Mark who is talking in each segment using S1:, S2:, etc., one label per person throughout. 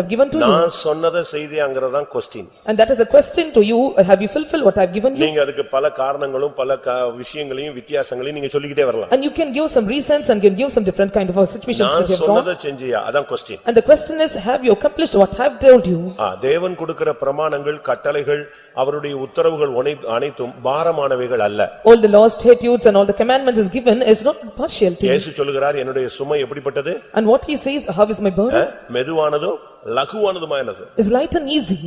S1: have given to you.
S2: நான் சொன்னதை செய்தியாங்கிறதான் question
S1: And that is the question to you, have you fulfilled what I have given you?
S2: நீங்க அதுக்கு பல காரணங்களும் பல கா- விஷயங்களையும் வித்தியாசங்களையும் நீங்க சொல்லிக்கிட்டே வரலாம்
S1: And you can give some reasons and can give some different kind of situations that
S2: நான்
S1: you have gone.
S2: சொன்னதை செஞ்சியா அதான் question
S1: And the question is, have you accomplished what I have told you?
S2: ஆ, தேவன் கொடுக்கிற பிரமாணங்கள் கட்டளைகள் அவருடைய உத்தரவுகள் உனை- அனைத்தும் பாரமானவைகள் அல்ல
S1: All the laws, statutes and all the commandments is given is not partial to you.
S2: இயேசு சொல்லுகிறார் என்னுடைய சுமை எப்படிப்பட்டது
S1: And what he says, how is my
S2: ah,
S1: burden?
S2: மெதுவானதும் லகுவானதுமானது
S1: Is light and easy.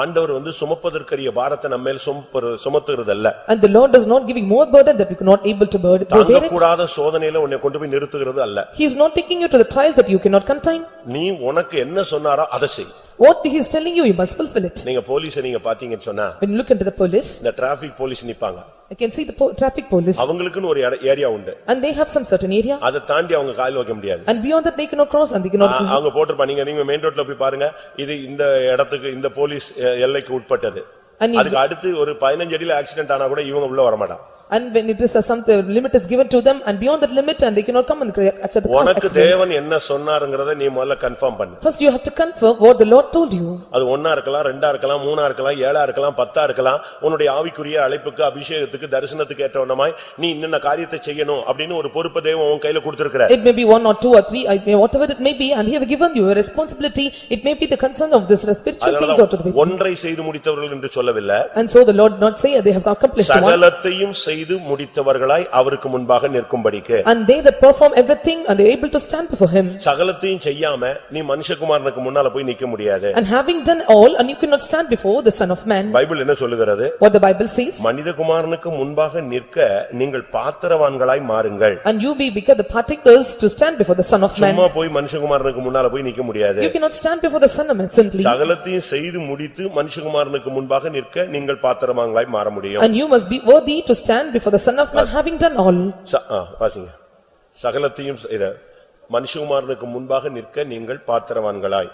S2: ஆண்டவர் வந்து சுமப்பதற்கரிய பாரத்தை நம்மேல் சுமப்பது- சுமத்துகிறதல்ல
S1: And the Lord is not giving more burden that we cannot able to burden. to bear it.
S2: தாங்கக்கூடாத சோதனையில உன்னை கொண்டு போய் நிறுத்துகிறது அல்ல
S1: He is not taking you to the trials that you cannot contain.
S2: நீ உனக்கு என்ன சொன்னாரோ அதை செய்
S1: What he is telling you, you must fulfill it.
S2: நீங்க போலீஸை நீங்க பாத்தீங்கன்னு சொன்னா
S1: When you look into the police,
S2: இந்த டிராபிக் போலீஸ் நிப்பாங்க
S1: you can see the po- traffic police
S2: அவங்களுக்குன்னு ஒரு இட- ஏரியா உண்டு
S1: and they have some certain area
S2: அதை தாண்டி அவங்க கால் வைக்க முடியாது
S1: and beyond that they cannot cross and they
S2: ah,
S1: cannot.
S2: அவங்க போட்டிருப்பாங்க நீங்க நீங்க மெயின் ரோட்ல போய் பாருங்க இது இந்த இடத்துக்கு இந்த போலீஸ் எ- எல்லைக்கு உட்பட்டது
S1: And if-
S2: அதுக்கு அடுத்து ஒரு பதினஞ்சு அடியில ஆக்சிடென்ட் ஆனா கூட இவங்க உள்ள வரமாட்டான்
S1: And when it is a some the limit is given to them and beyond that limit and they cannot come and create at the cross
S2: உனக்கு
S1: accidents.
S2: தேவன் என்ன சொன்னாருங்கிறத நீ முதல்ல கன்ஃபார்ம் பண்ணு
S1: First you have to confirm what the Lord told you.
S2: அது ஒன்னா இருக்கலாம் ரெண்டா இருக்கலாம் மூணா இருக்கலாம் ஏழா இருக்கலாம் பத்தா இருக்கலாம் உன்னுடைய ஆவிக்குரிய அழைப்புக்கு அபிஷேகத்துக்கு தரிசனத்துக்கு ஏற்றவனமாய் நீ இன்னென்ன காரியத்தை செய்யணும் அப்படின்னு ஒரு பொறுப்பு தேவன் உன் கையில கொடுத்திருக்கிற
S1: It may be one or two or three, it may whatever it may be and he have given you a responsibility. It may be the concern of this spiritual things or to the
S2: அதனாலதான்
S1: people.
S2: ஒன்றை செய்து முடித்தவர்கள் என்று சொல்லவில்லை
S1: And so the Lord not say they have accomplished one.
S2: சகலத்தையும் செய்து முடித்தவர்களாய் அவருக்கு முன்பாக நிற்கும்படிக்கு
S1: And they that perform everything and they are able to stand before him.
S2: சகலத்தையும் செய்யாம நீ மனுஷகுமாரனுக்கு முன்னால போய் நிக்க முடியாது
S1: And having done all, and you cannot stand before the son of man,
S2: Bible என்ன சொல்லுகிறது
S1: what the Bible says,
S2: மனிதகுமாரனுக்கு முன்பாக நிற்க நீங்கள் பாத்திரவான்களாய் மாறுங்கள்
S1: and you be become the partakers to stand before the son of man.
S2: சும்மா போய் மனுஷகுமாரனுக்கு முன்னால போய் நிக்க முடியாது
S1: You cannot stand before the son of man simply,
S2: சகலத்தையும் செய்து முடித்து மனுஷகுமாரனுக்கு முன்பாக நிற்க நீங்கள் பாத்திரவான்களாய் மாற முடியும்
S1: and you must be worthy to stand before the son of man, having done all.
S2: ச- ஆ, வாசிங்க சகலத்தையும் செய்த மனுஷகுமாரனுக்கு முன்பாக நிற்க நீங்கள் பாத்திரவான்களாய்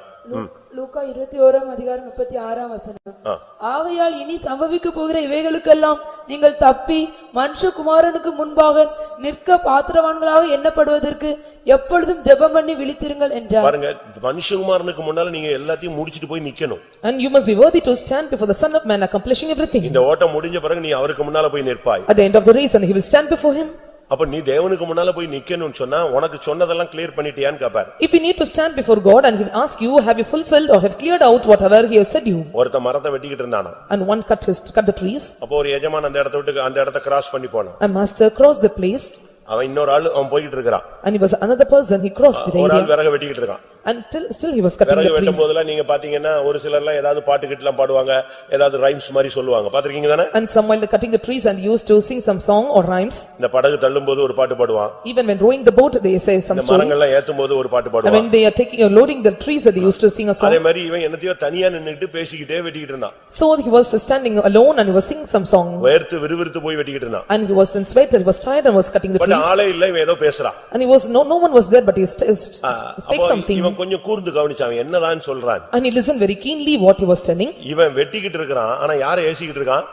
S3: லூக்கா இருபத்தி ஓராம் அதிகாரம் முப்பத்தி ஆறாம் வசனம்
S2: ஆ.
S3: ஆகையால் இனி சம்பவிக்கப் போகிற இவைகளுக்கெல்லாம் நீங்கள் தப்பி மனுஷகுமாரனுக்கு முன்பாக நிற்க பாத்திரவான்களாக எண்ணப்படுவதற்கு எப்பொழுதும் ஜெபம் பண்ணி விழித்திருங்கள் என்றார்
S2: பாருங்க மனுஷகுமாரனுக்கு முன்னால நீங்க எல்லாத்தையும் முடிச்சிட்டு போய் நிக்கணும்
S1: And you must be worthy to stand before the son of man, accomplishing everything.
S2: இந்த ஓட்டம் முடிஞ்ச பிறகு நீ அவருக்கு முன்னால போய் நிற்பாய்
S1: At the end of the race, and he will stand before him.
S2: அப்ப நீ தேவனுக்கு முன்னால போய் நிக்கணும்னு சொன்னா உனக்கு சொன்னதெல்லாம் கிளியர் பண்ணிட்டியான்னு கேப்பார்
S1: If you need to stand before God, and he will ask you, have you fulfilled or have cleared out whatever he has said you?
S2: ஒருத்த மரத்தை வெட்டிக்கிட்டு இருந்தானோ
S1: And one cut his, cut the trees,
S2: அப்போ ஒரு எஜமான் அந்த இடத்த விட்டு அந்த இடத்த கிராஸ் பண்ணி போனான்
S1: and master crossed the place,
S2: அவன் இன்னொரு ஆள் அவன் போயிட்டு இருக்கிறான்
S1: and he was another person, he crossed the
S2: ஒரு
S1: area,
S2: ஆள் விறகு வெட்டிக்கிட்டு இருக்கான்
S1: and still, still he was cutting
S2: விறகு
S1: the trees.
S2: வெட்டும் போதெல்லாம் நீங்க பாத்தீங்கன்னா ஒரு சிலர்லாம் ஏதாவது பாட்டுக்கிட்டுலாம் பாடுவாங்க ஏதாவது ரைம்ஸ் மாதிரி சொல்லுவாங்க பாத்திருக்கீங்க தானே
S1: And some while they're cutting the trees and used to sing some song or rhymes.
S2: இந்த படகு தள்ளும் போது ஒரு பாட்டு பாடுவான்
S1: Even when rowing the boat, they say some
S2: இந்த
S1: story.
S2: மரங்கள்லாம் ஏத்தும் போது ஒரு பாட்டு
S1: And
S2: பாடுவான்
S1: when they are taking, or loading the trees, they used to sing a
S2: அதே
S1: song.
S2: மாதிரி இவன் என்னத்தையோ தனியா நின்னுட்டு பேசிக்கிட்டே வெட்டிக்கிட்டு இருந்தான்
S1: So he was standing alone and he was singing some song.
S2: வேர்த்து விறுவிறுத்து போய் வெட்டிக்கிட்டு இருந்தான்
S1: And he was in sweat and he was tired and was cutting the
S2: but
S1: trees.
S2: ஆளே இல்ல இவன் ஏதோ பேசுறான்
S1: And he was, no, no one was there, but he st- uh, s-
S2: ah,
S1: s- spake
S2: அப்போ
S1: something.
S2: இவன் கொஞ்சம் கூர்ந்து கவனிச்சான் என்னதான் சொல்றான்
S1: And he listened very keenly what he was telling.
S2: இவன் வெட்டிக்கிட்டு இருக்கிறான் ஆனா யாரை ஏசிக்கிட்டு இருக்கான்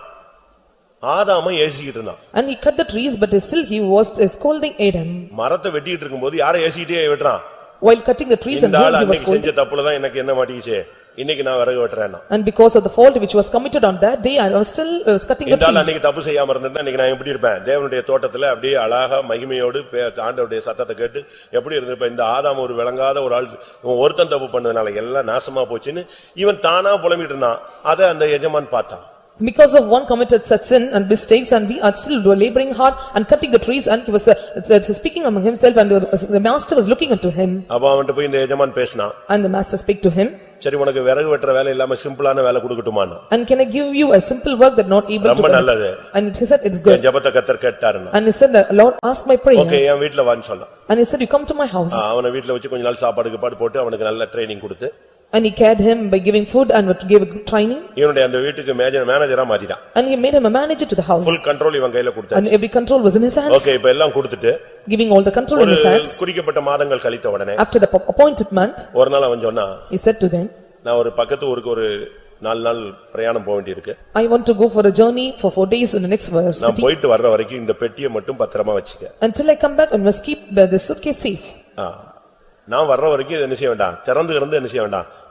S2: ஆதாம ஏசிக்கிட்டு இருந்தான்
S1: And he cut the trees, but still he was uh, scolding Adam.
S2: மரத்தை வெட்டிக்கிட்டு இருக்கும்போது யாரை ஏசிக்கிட்டே வெட்டுறான்
S1: While cutting the trees and
S2: இந்த ஆள்
S1: he was
S2: அன்னைக்கு
S1: scolding.
S2: செஞ்ச தப்புலதான் எனக்கு என்ன மாட்டிக்கிச்சு இன்னைக்கு நான் விறகு வெட்டுறேன்னா
S1: And because of the fault which was committed on that day, I was still uh, cutting the
S2: இந்த ஆள்
S1: trees.
S2: அன்னைக்கு தப்பு செய்யாம இருந்திருந்தா இன்னைக்கு நான் எப்படி இருப்பேன் தேவனுடைய தோட்டத்துல அப்படியே அழகா மகிமையோடு பே- ஆண்டவருடைய சத்தத்தை கேட்டு எப்படி இருந்திருப்பேன் இந்த ஆதாம் ஒரு விளங்காத ஒரு ஆள் இவன் ஒருத்தன் தப்பு பண்ணதுனால எல்லாம் நாசமா போச்சுன்னு இவன் தானா புலம்பிட்டு இருந்தான் அதை அந்த எஜமான் பார்த்தான்
S1: Because of one committed such sin and mistakes and we are still laboring hard and cutting the trees and he was uh, uh, speaking among himself and uh, the the master was looking unto him
S2: அப்ப அவன்கிட்ட போய் இந்த எஜமான் பேசினான்
S1: and the master spake to him
S2: சரி உனக்கு விறகு வெட்டுற வேலை இல்லாம சிம்பிளான வேலை கொடுக்கட்டுமான்னு
S1: and can I give you a simple work that not able
S2: ரொம்ப
S1: to
S2: நல்லது
S1: and he said it's
S2: N
S1: good
S2: ஜபத்தை கத்தர் கேட்டாருன்னா
S1: and he said "Uh, Lord ask my
S2: okay
S1: prayer
S2: என் வீட்டுல வான்னு சொன்னான்
S1: and he said you come to my house
S2: ஆ, அவனை வீட்டுல வச்சு கொஞ்ச நாள் சாப்பாடு கீப்பாடு போட்டு அவனுக்கு நல்ல ட்ரைனிங் கொடுத்து
S1: and he cared him by giving food and what gave a good training
S2: இவனுடைய அந்த வீட்டுக்கு மேஜர் மேனேஜரா மாத்திட்டான்
S1: and he made him a manager to the house
S2: full control இவன் கையில கொடுத்தாரு
S1: and every control was in his hands
S2: okay இப்ப எல்லாம் கொடுத்துட்டு
S1: giving all the control in
S2: ஒரு
S1: his hands
S2: குறிக்கப்பட்ட மாதங்கள் கழித்த உடனே
S1: after the appointed month
S2: ஒரு நாள் அவன் சொன்னா
S1: he said to them
S2: நான் ஒரு பக்கத்து ஊருக்கு ஒரு நாலு நாள் பிரயாணம் போக வேண்டியிருக்கு
S1: I want to go for a journey for four days in the next verse.
S2: நான் போயிட்டு வர்ற வரைக்கும் இந்த பெட்டியை மட்டும் பத்திரமா வச்சுக்க
S1: Until I come back, I must keep the the suitcase safe.
S2: ஆ. நான் வர்ற வரைக்கும் இதை என்ன செய்ய வேண்டாம் திறந்து கிடந்து என்ன செய்ய வேண்டாம்